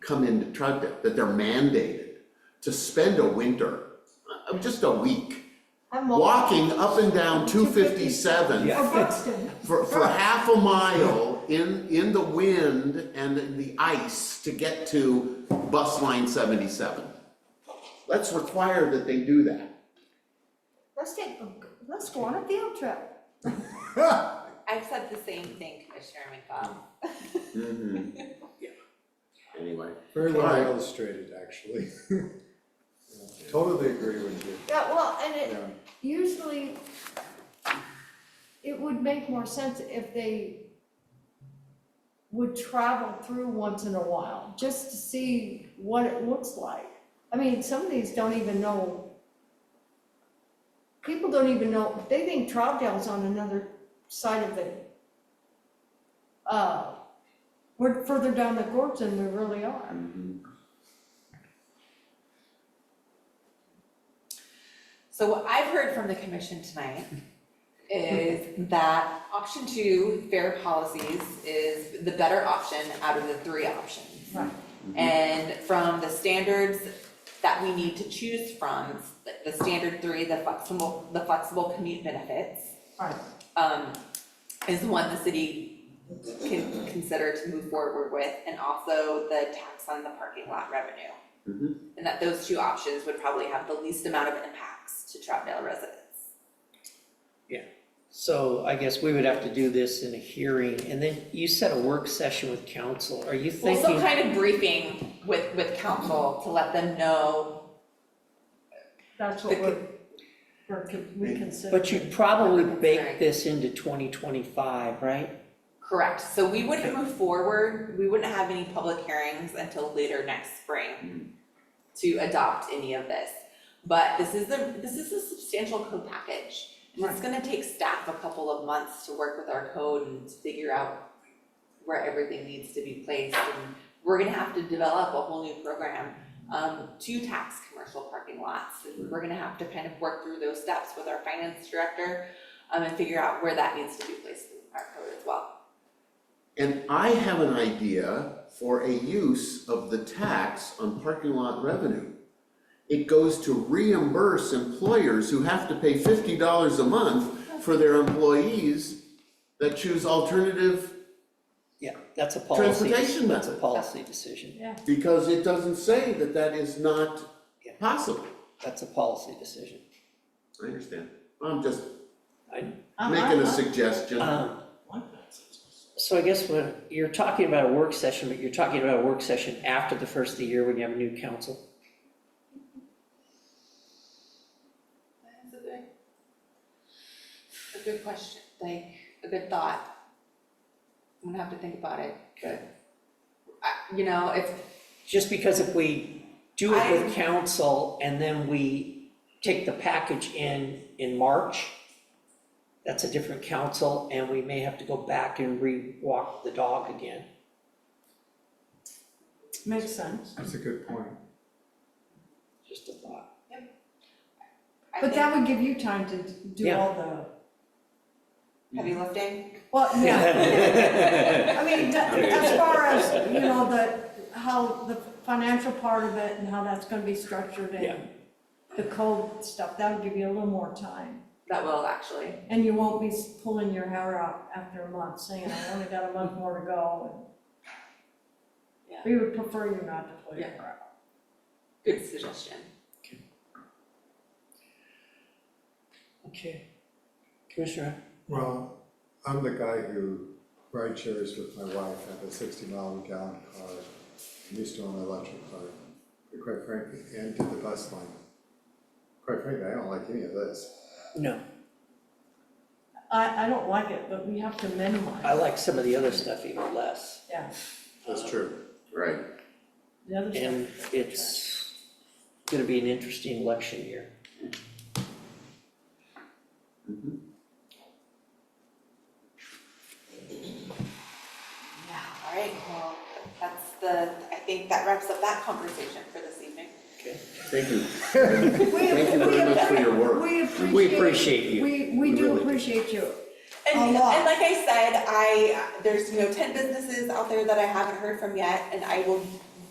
come into Troutdale, that they're mandated to spend a winter, uh, just a week, I'm all- walking up and down two fifty-seven Or Buxton. for, for half a mile in, in the wind and in the ice to get to bus line seventy-seven. Let's require that they do that. Let's take, let's go on a field trip. I've said the same thing, Commissioner McCall. Anyway, Very All well right. illustrated, actually. Totally agree with you, Yeah, well, and yeah. it, usually, it would make more sense if they would travel through once in a while, just to see what it looks like. I mean, some of these don't even know. People don't even know, they think Troutdale's on another side of the, uh, we're further down the gorge than we really are. So what I've heard from the commission tonight is that option two, fair policies, is the better option out of the three options. Right. And from the standards that we need to choose from, the- the standard three, the flexible, the flexible commute benefits, Right. um, is one the city can consider to move forward with, and also the tax on the parking lot revenue. And that those two options would probably have the least amount of impacts to Troutdale residents. So I guess we would have to do this in a hearing, and then you said a work session with council, are you Well, some thinking? kind of briefing with, with council to let them know, That's what what we're- we're, we consider. But you'd probably bake this into twenty twenty-five, right? correct, so we wouldn't move forward, we wouldn't have any public hearings until later next spring to adopt any of this, but this is a, this is a substantial code package. And it's gonna take staff a couple of months to work with our code and to figure out where everything needs to be placed, and we're gonna have to develop a whole new program um, to tax commercial parking lots, and we're gonna have to kind of work through those steps with our finance director, um, and figure out where that needs to be placed in our code as well. And I have an idea for a use of the tax on parking lot revenue. It goes to reimburse employers who have to pay fifty dollars a month for their employees that choose alternative, Yeah, that's a policy, Transportation that's a method. policy decision, Yeah. because it doesn't say that that is not Yeah. possible. that's a policy decision. I understand. I'm just I- making a suggestion. Um, So I guess when, you're talking about a work session, but you're talking about a work session after the first of the year when you have a new council? That's a good, a good question, like, a good thought. I'm gonna have to think about it, Okay. I, you know, if, Just because if we do it I- with council and then we take the package in, in March, that's a different council and we may have to go back and re-walk the dog again. Makes sense. That's a good point. Just a thought. I But think that would give you time to do Yeah. all the, heavy lifting. well, yeah. I mean, that- as far as, you know, the, how the financial part of it and how that's gonna be structured Yeah. and the code stuff, that would give you a little more time. That will actually. And you won't be pulling your hair out after a month saying, I only got a month more to go. Yeah. We would prefer you not to pull your Yeah. hair out. Good suggestion. Okay. Commissioner, Well, I'm the guy who ride shares with my wife, I have a sixty mile a gallon car, I used to own an electric car, and quite frankly, and did the bus line. Quite frankly, I don't like any of this. no, I, I don't like it, but we have to I minimize, like some of the other stuff even less. yeah, That's true. Right. the other stuff. And it's gonna be an interesting election year. Yeah. All right, well, that's the, I think that wraps up that conversation for this evening. Okay. Thank you. We- Thank you we- very much for your work. We appreciate. We appreciate you. We, we We do really do. appreciate you. And, A and lot. like I said, I, there's, you know, ten businesses out there that I haven't heard from yet, and I will